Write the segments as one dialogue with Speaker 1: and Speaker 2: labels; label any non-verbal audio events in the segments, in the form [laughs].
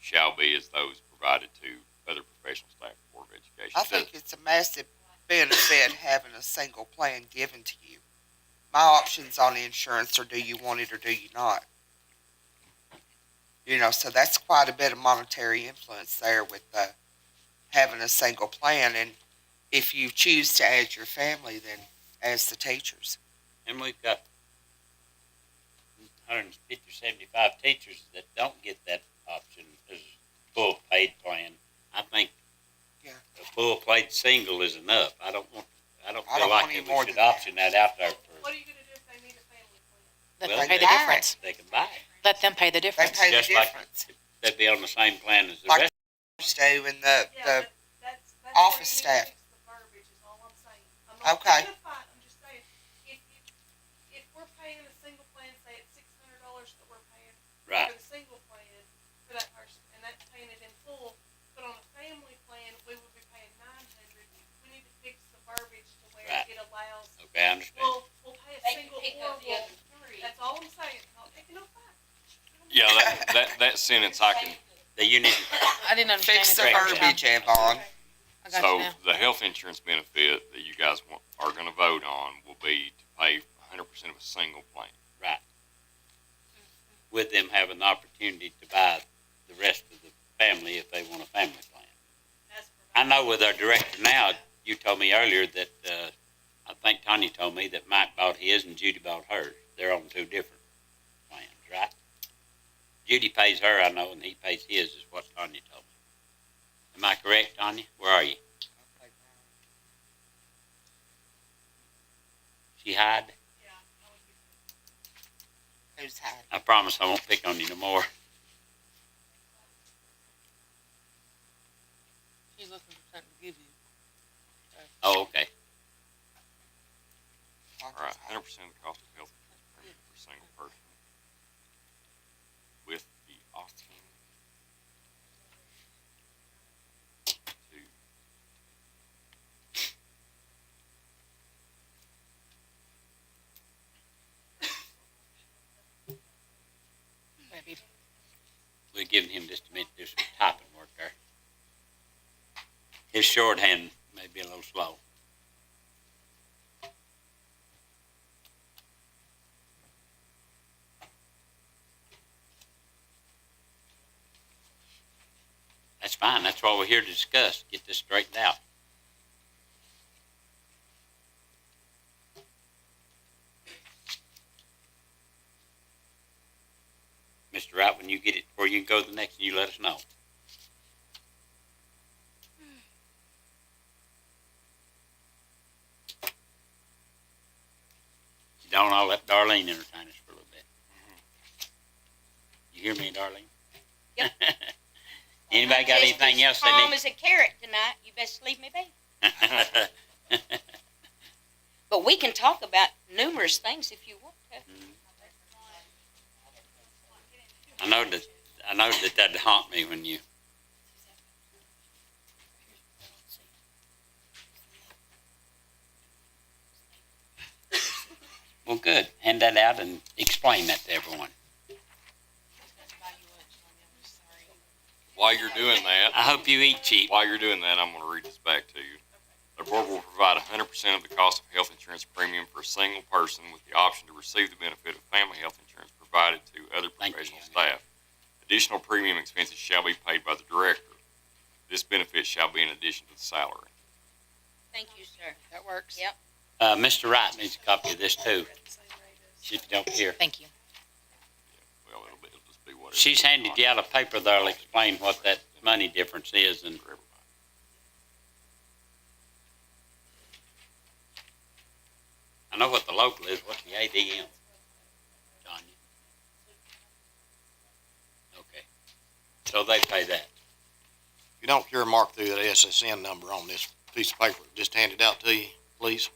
Speaker 1: shall be as those provided to other professional staff of the Board of Education.
Speaker 2: I
Speaker 1: It doesn't-
Speaker 2: think it's a massive benefit having a single plan given to you. My options on insurance are do you want it or do you not? You know, so that's quite a bit of monetary influence there with uh, having a single plan. And if you choose to add your family, then as the teachers.
Speaker 3: And we've got 150 or 75 teachers that don't get that option as full paid plan. I think
Speaker 2: Yeah.
Speaker 3: a full paid single is enough. I don't want, I don't
Speaker 2: I
Speaker 3: feel
Speaker 2: don't
Speaker 3: like
Speaker 2: want any
Speaker 3: that
Speaker 2: more
Speaker 3: we should
Speaker 2: than that.
Speaker 3: option that. out there for.
Speaker 4: What are you gonna do if they need a family plan?
Speaker 5: Let
Speaker 3: Well,
Speaker 5: them pay
Speaker 2: they-
Speaker 5: the difference.
Speaker 3: They can buy it.
Speaker 5: Let them pay the
Speaker 2: They
Speaker 5: difference.
Speaker 2: pay the
Speaker 3: Just like-
Speaker 2: difference.
Speaker 3: They'd be on the same plan as the
Speaker 2: Like-
Speaker 3: rest.
Speaker 2: Stu and the,
Speaker 4: Yeah,
Speaker 2: the,
Speaker 4: but that's, that's.
Speaker 2: office
Speaker 4: where
Speaker 2: staff.
Speaker 4: you need to fix The verbiage is all I'm saying. I'm not
Speaker 2: Okay.
Speaker 4: identifying, I'm just saying, if, if, if we're paying a single plan, say it's six hundred dollars that we're paying
Speaker 3: Right.
Speaker 4: for the single plan for that person, and that's paying it in full, but on a family plan, we would be paying nine hundred. We need to fix the verbiage to where
Speaker 3: Right.
Speaker 4: it allows,
Speaker 3: Okay, I understand.
Speaker 4: we'll, we'll pay a
Speaker 6: They can
Speaker 4: single
Speaker 6: pick
Speaker 4: or
Speaker 6: up the
Speaker 4: we'll,
Speaker 6: other three.
Speaker 4: that's all I'm saying, not picking up five.
Speaker 1: Yeah, that, that, that sentence I can,
Speaker 3: The union,
Speaker 5: I didn't understand.
Speaker 2: fix the
Speaker 5: it.
Speaker 3: Correct.
Speaker 2: verbiage, Avon.
Speaker 5: I got you
Speaker 1: so
Speaker 5: now.
Speaker 1: the health insurance benefit that you guys want, are gonna vote on will be to pay hundred percent of a single plan.
Speaker 3: right.
Speaker 4: Mm-hmm.
Speaker 3: With them having the opportunity to buy the rest of the family if they want a family plan.
Speaker 4: That's provided.
Speaker 3: I know with our director now, you told me earlier that, uh, I think Tanya told me that Mike bought his and Judy bought hers. They're on two different plans, right? Judy pays her, I know, and he pays his, is what Tanya told me. Am I correct, Tanya? Where are you? She hide?
Speaker 4: Yeah, I would be-
Speaker 2: Who's had?
Speaker 3: I promise I won't pick on you no more.
Speaker 5: She's looking for something to give you.
Speaker 3: Oh, okay.
Speaker 1: All right, hundred percent of the cost of health insurance premium for a single person with the option to
Speaker 5: Maybe
Speaker 3: We're giving him just a minute to do some typing work there. His shorthand may be a little slow. That's fine. That's why we're here to discuss, get this straightened out. Mr. Wright, when you get it, where you can go to the next, you let us know. If you don't, I'll let Darlene entertain us for a little bit. You hear me, Darlene?
Speaker 6: Yep.
Speaker 3: [laughs] Anybody got
Speaker 6: Just
Speaker 3: anything else
Speaker 6: as
Speaker 3: they
Speaker 6: Calm
Speaker 3: need?
Speaker 6: as a carrot tonight, you best leave me be.
Speaker 3: [laughs]
Speaker 6: But we can talk about numerous things if you want to.
Speaker 3: I know that, I know that that'd haunt me when you, well, good. Hand that out and explain that to everyone.
Speaker 1: While you're doing that,
Speaker 3: I hope you eat cheap.
Speaker 1: While you're doing that, I'm going to read this back to you. The board will provide 100% of the cost of health insurance premium for a single person with the option to receive the benefit of family health insurance provided to other
Speaker 3: Thank you.
Speaker 1: professional staff. Additional premium expenses shall be paid by the director. This benefit shall be in addition to the salary.
Speaker 6: Thank you, sir.
Speaker 5: that works.
Speaker 6: Yep.
Speaker 3: Uh, Mr. Wright needs a copy of this too, if you don't care.
Speaker 5: Thank you.
Speaker 1: Well, it'll, be, it'll just be whatever.
Speaker 3: She's handed you out a paper that'll explain what that money difference is and
Speaker 1: For everybody.
Speaker 3: I know what the local is, what's the ADM? Tanya? Okay. So they pay that.
Speaker 7: You don't care mark through that SSN number on this piece of paper, just hand it out to you, please.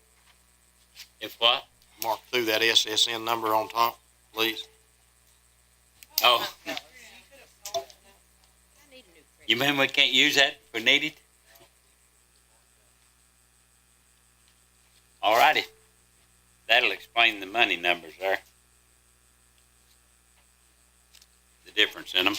Speaker 3: If what?
Speaker 7: Mark through that SSN number on top, please.
Speaker 3: Oh,
Speaker 6: I need a new carrot.
Speaker 3: you mean we can't use that if we need it? All righty. That'll explain the money numbers there. The difference in them.